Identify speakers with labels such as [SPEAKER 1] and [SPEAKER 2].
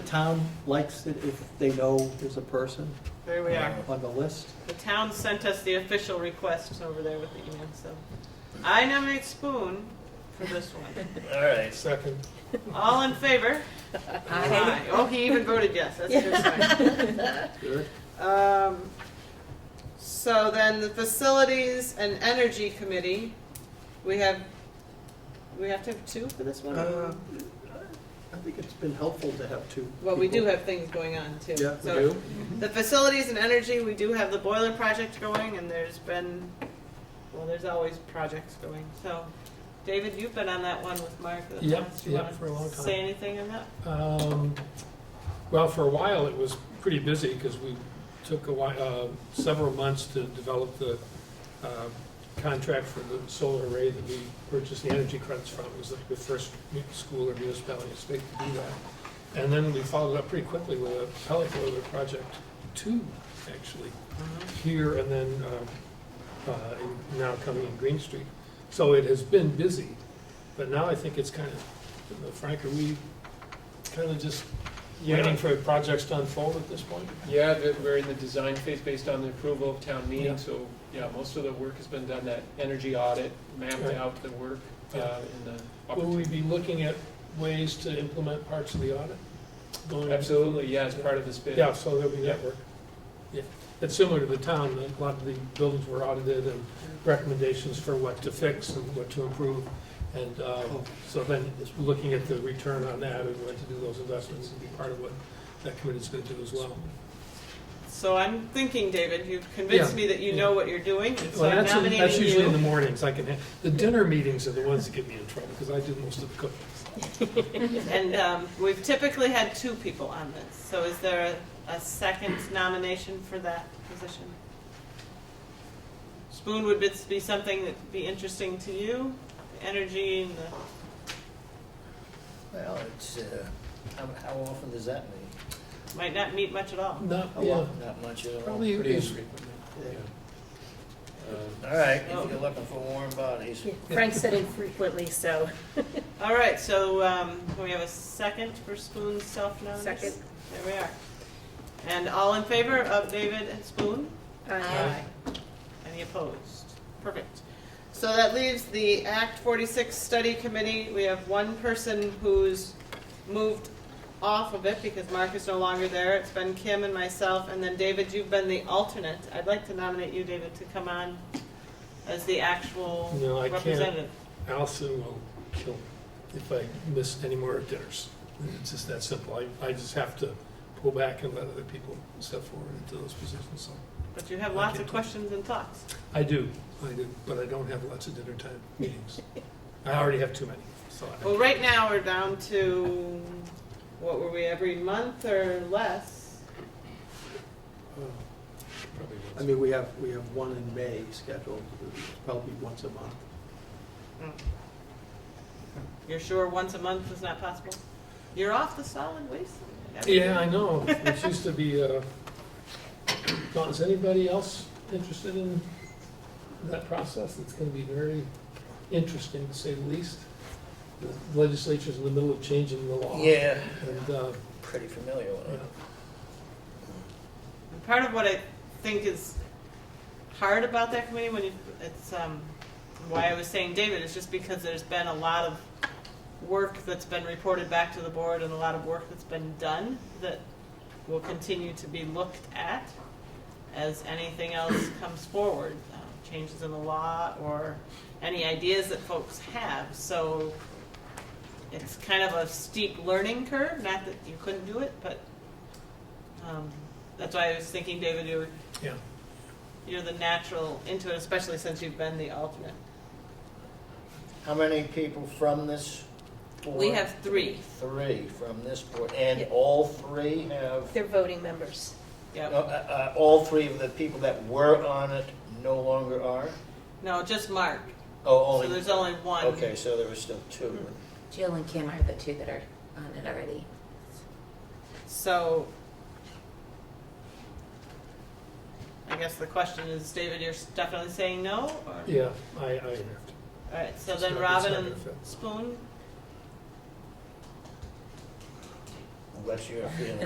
[SPEAKER 1] town likes it if they know there's a person
[SPEAKER 2] There we are.
[SPEAKER 1] on the list.
[SPEAKER 2] The town sent us the official request over there with the email, so. I nominate Spoon for this one.
[SPEAKER 3] All right, so
[SPEAKER 4] Second.
[SPEAKER 2] All in favor? Aye. Oh, he even voted yes, that's a good sign.
[SPEAKER 1] Good.
[SPEAKER 2] Um, so then the facilities and energy committee, we have, we have to have two for this one?
[SPEAKER 1] Uh, I think it's been helpful to have two.
[SPEAKER 2] Well, we do
[SPEAKER 1] people.
[SPEAKER 2] have things going on too.
[SPEAKER 1] Yeah, we
[SPEAKER 2] So
[SPEAKER 1] do.
[SPEAKER 2] The facilities and energy, we do have the boiler project going and there's been, well, there's always projects going, so. David, you've been on that one with Mark. the
[SPEAKER 4] Yep,
[SPEAKER 2] last- you
[SPEAKER 4] yep,
[SPEAKER 2] wanna
[SPEAKER 4] for a long time.
[SPEAKER 2] Say anything on that?
[SPEAKER 4] Um, Well, for a while, it was pretty busy because we took a while, uh, several months to develop the uh, contract for the solar array that we purchased the energy credits from. It was like the first mu- school or municipality in the state to do that. And then we followed up pretty quickly with a pellet boiler project, two, actually, here and then uh, uh, in- now coming in Green Street. So it has been busy, but now I think it's kind of, Frank, are we kind of just waiting for projects to unfold at this point?
[SPEAKER 5] Yeah, the- we're in the design phase based on the approval of town
[SPEAKER 4] Yeah.
[SPEAKER 5] meeting, so, yeah, most of the work has been done, that energy audit mapped
[SPEAKER 4] Right.
[SPEAKER 5] out the work uh,
[SPEAKER 4] Yeah.
[SPEAKER 5] in the.
[SPEAKER 4] Will we be looking at ways to implement parts of the audit? going-
[SPEAKER 5] Absolutely, yeah, as part of this bid.
[SPEAKER 4] Yeah, so there'll be network. Yeah, it's similar to the town, a lot of the buildings were audited and recommendations for what to fix and what to improve. And uh, so then, it's looking at the return on that and what to do those investments would be part of what that committee's going to do as well.
[SPEAKER 2] So I'm thinking, David, you've convinced
[SPEAKER 4] Yeah,
[SPEAKER 2] me that you
[SPEAKER 4] yeah.
[SPEAKER 2] know what you're doing, and so
[SPEAKER 4] Well,
[SPEAKER 2] I'm
[SPEAKER 4] that's, in- that's
[SPEAKER 2] nominating
[SPEAKER 4] usually in the
[SPEAKER 2] you.
[SPEAKER 4] mornings, I can, ha- the dinner meetings are the ones that get me in trouble, because I do most of the cooking.
[SPEAKER 2] And um, we've typically had two people on this, so is there a, a second nomination for that position? Spoon would be- be something that'd be interesting to you, energy and the,
[SPEAKER 6] Well, it's, uh, how, how often does that meet?
[SPEAKER 2] might not meet much at all.
[SPEAKER 4] Not,
[SPEAKER 6] Oh,
[SPEAKER 4] yeah,
[SPEAKER 6] Not much at all.
[SPEAKER 4] probably
[SPEAKER 5] Pretty
[SPEAKER 4] is,
[SPEAKER 5] infrequent.
[SPEAKER 6] Yeah.
[SPEAKER 5] Um,
[SPEAKER 6] All right, if you're looking for warm bodies.
[SPEAKER 7] Frank said infrequently, so
[SPEAKER 2] All right, so um, we have a second for Spoon's self-nomination?
[SPEAKER 7] Second.
[SPEAKER 2] There we are. And all in favor of David and Spoon?
[SPEAKER 7] uh,
[SPEAKER 2] Any opposed? Perfect. So that leaves the Act 46 Study Committee. We have one person who's moved off of it because Mark is no longer there. It's been Kim and myself, and then David, you've been the alternate. I'd like to nominate you, David, to come on as the actual
[SPEAKER 4] No, I can't.
[SPEAKER 2] representative.
[SPEAKER 4] Allison will kill me if I miss any more dinners. It's just that simple, I, I just have to pull back and let other people step forward into those positions, so.
[SPEAKER 2] But you have
[SPEAKER 4] I
[SPEAKER 2] lots
[SPEAKER 4] can't
[SPEAKER 2] of
[SPEAKER 4] do it.
[SPEAKER 2] questions and thoughts.
[SPEAKER 4] I do, I do, but I don't have lots of dinner time meetings. I already have too many, so. I-
[SPEAKER 2] Well, right now, we're down to, what were we, every month or less?
[SPEAKER 4] probably won't.
[SPEAKER 1] I mean, we have, we have one in May scheduled, probably once a month.
[SPEAKER 2] You're sure once a month is not possible? You're off the solid waste?
[SPEAKER 4] Yeah, I know. It used to be, uh, Don, is anybody else interested in that process? It's going to be very interesting, to say the least. The Legislature's in the middle of changing the law.
[SPEAKER 6] Yeah,
[SPEAKER 4] And, uh,
[SPEAKER 6] pretty familiar with
[SPEAKER 4] yeah,
[SPEAKER 6] it.
[SPEAKER 2] And Part of what I think is hard about that committee when you, it's, um, why I was saying David, is just because there's been a lot of work that's been reported back to the board and a lot of work that's been done that will continue to be looked at as anything else comes forward, uh, changes in the law or any ideas that folks have. So it's kind of a steep learning curve, not that you couldn't do it, but um, that's why I was thinking, David, you're,
[SPEAKER 4] yeah.
[SPEAKER 2] you're the natural into it, especially since you've been the alternate.
[SPEAKER 6] How many people from this board?
[SPEAKER 2] We have three.
[SPEAKER 6] Three from this board, and
[SPEAKER 7] Yeah.
[SPEAKER 6] all three have,
[SPEAKER 7] they're voting members.
[SPEAKER 6] uh,
[SPEAKER 2] Yep.
[SPEAKER 6] uh, all three of the people that were on it no longer are?
[SPEAKER 2] No, just Mark.
[SPEAKER 6] Oh,
[SPEAKER 2] So
[SPEAKER 6] only.
[SPEAKER 2] there's only one. Mm-hmm.
[SPEAKER 6] Okay, so there were still two.
[SPEAKER 8] Jill and Kim are the two that are on it already.
[SPEAKER 2] So I guess the question is, David, you're definitely saying no? Or?
[SPEAKER 4] Yeah, I, I have to.
[SPEAKER 2] All right, so
[SPEAKER 4] It's
[SPEAKER 2] then
[SPEAKER 4] not- it's
[SPEAKER 2] Robin
[SPEAKER 4] not
[SPEAKER 2] and
[SPEAKER 4] gonna fit.
[SPEAKER 2] Spoon.
[SPEAKER 6] what's your feeling?